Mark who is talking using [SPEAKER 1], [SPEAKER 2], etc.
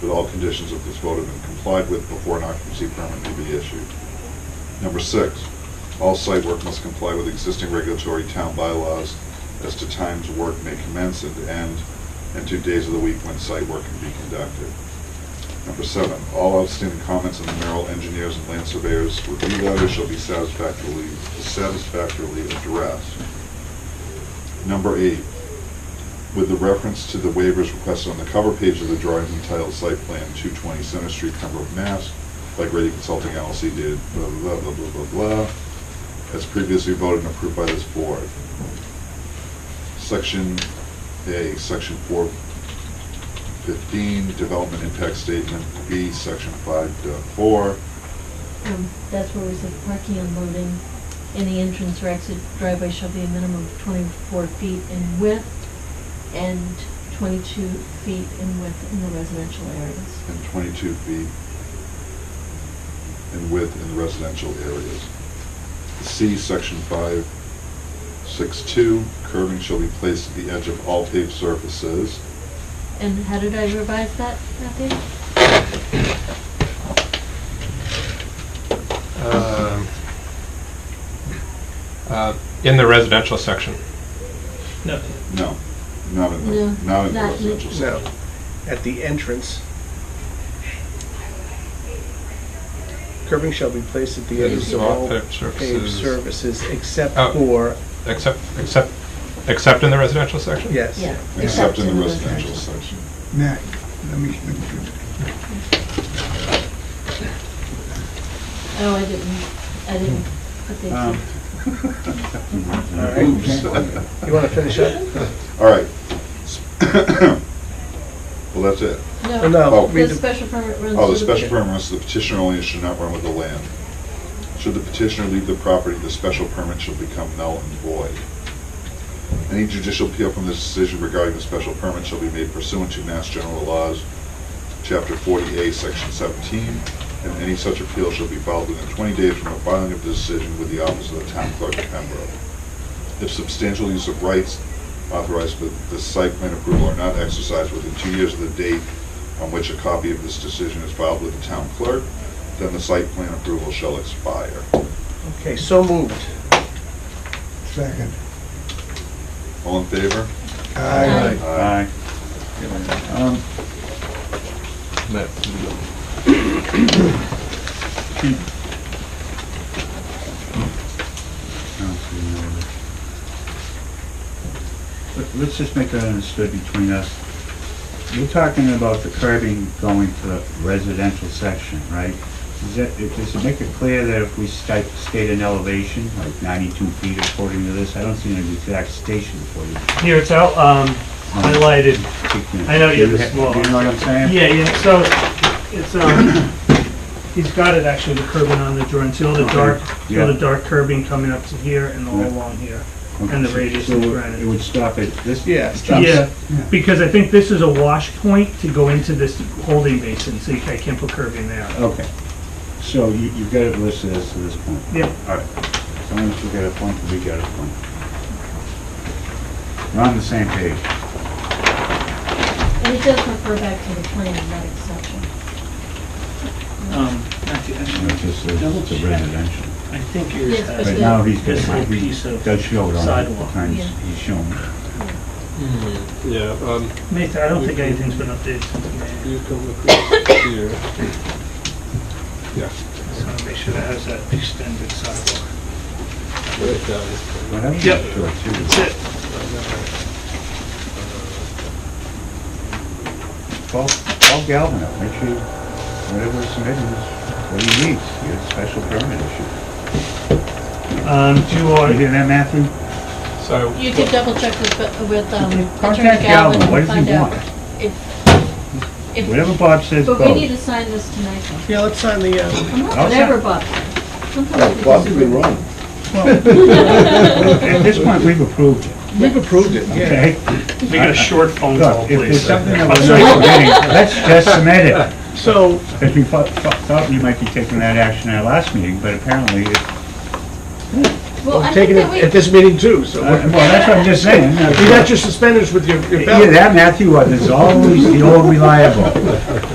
[SPEAKER 1] that all conditions of this vote have been complied with before an occupancy permit may be issued. Number six, all site work must comply with existing regulatory town bylaws as to times work may commence and end, and to days of the week when site work can be conducted. Number seven, all outstanding comments in the Merrill engineers and land surveyors review letter shall be satisfactorily, satisfactorily addressed. Number eight, with the reference to the waivers requested on the cover page of the drawings entitled Site Plan 220 Center Street, Pembroke, Mass., by Grady Consulting LLC dated blah, blah, blah, blah, blah, blah, as previously voted and approved by this board. Section A, Section 415, Development Impact Statement, B, Section 5.4,
[SPEAKER 2] Um, That's where we said parking and loading in the entrance or exit driveway shall be a minimum of twenty-four feet in width and twenty-two feet in width in the residential areas.
[SPEAKER 1] and 22 feet in width in residential areas. C, section 562, curving shall be placed at the edge of all paved surfaces.
[SPEAKER 2] And how did I revise that, Matthew?
[SPEAKER 3] Um, uh, In the residential section.
[SPEAKER 4] No,
[SPEAKER 1] No, not in
[SPEAKER 2] No,
[SPEAKER 1] the, not in the
[SPEAKER 2] not-
[SPEAKER 1] residential
[SPEAKER 5] No,
[SPEAKER 1] section.
[SPEAKER 5] at the entrance. Curbing shall be placed at the edges of all
[SPEAKER 3] Paved surfaces.
[SPEAKER 5] paved services except
[SPEAKER 3] Oh.
[SPEAKER 5] for,
[SPEAKER 3] Except, except, except in the residential section?
[SPEAKER 5] yes.
[SPEAKER 2] Yeah.
[SPEAKER 1] Except in the residential section.
[SPEAKER 6] Matt, let me, let me,
[SPEAKER 2] Oh, I didn't, I didn't put the
[SPEAKER 5] Um,
[SPEAKER 2] exception.
[SPEAKER 1] Oops.
[SPEAKER 5] You want to finish up?
[SPEAKER 1] All right. Well, that's it.
[SPEAKER 5] Oh, No.
[SPEAKER 1] Oh.
[SPEAKER 5] read
[SPEAKER 2] The special permit runs.
[SPEAKER 1] Oh, the
[SPEAKER 2] through
[SPEAKER 1] special permit runs to the petitioner only and should not run with the land. Should the petitioner leave the property, the special permit shall become null and void. Any judicial appeal from this decision regarding the special permit shall be made pursuant to Mass General Laws, Chapter 40A, Section 17, and any such appeal shall be filed within 20 days from the filing of the decision with the office of the town clerk of Pembroke. If substantial use of rights authorized with the site plan approval are not exercised within two years of the date on which a copy of this decision is filed with the town clerk, then the site plan approval shall expire.
[SPEAKER 5] Okay, so moved.
[SPEAKER 6] second.
[SPEAKER 1] All in favor?
[SPEAKER 2] Aye.
[SPEAKER 1] Aye.
[SPEAKER 6] Um,
[SPEAKER 7] Let- Let's just make that understood between us. You're talking about the curbing going to the residential section, right? Is that, if- does it make it clear that if we state, state an elevation, like ninety-two feet according to this, I don't see an exact station for you.
[SPEAKER 4] here it's out, um, highlighted. I know you have a small-
[SPEAKER 7] Do you know what I'm saying?
[SPEAKER 4] Yeah, yeah, so it's, um, he's got it actually, the curbing on the drawing, see all the dark, see all the
[SPEAKER 7] Yeah.
[SPEAKER 4] dark curbing coming up to here and all
[SPEAKER 7] Yeah.
[SPEAKER 4] along here.
[SPEAKER 7] Okay,
[SPEAKER 4] and the
[SPEAKER 7] so-
[SPEAKER 4] radius
[SPEAKER 7] so
[SPEAKER 4] is granted.
[SPEAKER 7] It would stop at this?
[SPEAKER 5] Yeah, it stops.
[SPEAKER 4] Yeah, because I think this is a wash point to go into this holding basin, so you ca- I can't put curbing there.
[SPEAKER 7] Okay. So you, you've got it listed as to this point?
[SPEAKER 4] Yeah.
[SPEAKER 7] All right. As long as we get a point, we get a point. We're on the same page.
[SPEAKER 2] And it does refer back to the plan, not exception.
[SPEAKER 8] Um, Matthew, I
[SPEAKER 7] It's just, a- it's a residential.
[SPEAKER 8] I think yours
[SPEAKER 2] Yes,
[SPEAKER 8] has
[SPEAKER 2] but
[SPEAKER 7] Right
[SPEAKER 2] the-
[SPEAKER 7] now, he's got,
[SPEAKER 8] This little
[SPEAKER 7] he
[SPEAKER 8] piece of
[SPEAKER 7] does show it on the
[SPEAKER 8] sidewalk.
[SPEAKER 7] times
[SPEAKER 2] Yeah.
[SPEAKER 7] he's shown.
[SPEAKER 3] Yeah, um,
[SPEAKER 4] Nathan, I don't think anything's been updated since May.
[SPEAKER 3] you come across here. Yeah,
[SPEAKER 4] So I make sure that has that extended sidewalk.
[SPEAKER 3] right down this way.
[SPEAKER 7] But I'm not
[SPEAKER 4] Yep.
[SPEAKER 7] sure too.
[SPEAKER 4] That's it.
[SPEAKER 7] Call, call Galvin up, make sure, whatever is submitted is what he needs, you have a special permit issue.
[SPEAKER 4] Um, do you
[SPEAKER 7] You
[SPEAKER 4] want,
[SPEAKER 7] hear that, Matthew?
[SPEAKER 3] So,
[SPEAKER 2] You could double check with, with um, Attorney
[SPEAKER 7] Contact Galvin,
[SPEAKER 2] Galvin
[SPEAKER 7] what
[SPEAKER 2] and
[SPEAKER 7] does he
[SPEAKER 2] find out.
[SPEAKER 7] want?
[SPEAKER 2] if- if-
[SPEAKER 7] Whatever Bob says
[SPEAKER 2] But we need
[SPEAKER 7] goes.
[SPEAKER 2] to sign this tonight, though.
[SPEAKER 5] Yeah, let's sign the, uh,
[SPEAKER 2] I'm not
[SPEAKER 7] I'll
[SPEAKER 2] whatever,
[SPEAKER 7] sign-
[SPEAKER 2] Bob. Sometimes we
[SPEAKER 6] Bob,
[SPEAKER 2] just-
[SPEAKER 6] you've been wrong.
[SPEAKER 7] At this point, we've approved it,
[SPEAKER 5] we've approved it, yeah.
[SPEAKER 7] okay?
[SPEAKER 4] we got a short phone call,
[SPEAKER 7] Look, if there's
[SPEAKER 4] please.
[SPEAKER 7] something that we're not getting, let's just submit it.
[SPEAKER 5] So,
[SPEAKER 7] Because we thought, thought- thought we might be taking that action at our last meeting, but apparently, it- uh,
[SPEAKER 2] Well, I think
[SPEAKER 5] I'm taking
[SPEAKER 2] that
[SPEAKER 5] it at
[SPEAKER 2] we,
[SPEAKER 5] this meeting too, so.
[SPEAKER 7] well,
[SPEAKER 5] we're-
[SPEAKER 7] that's what I'm just saying.
[SPEAKER 5] You got your suspenders with your your belt.
[SPEAKER 7] Either that, Matthew, or there's always the old reliable.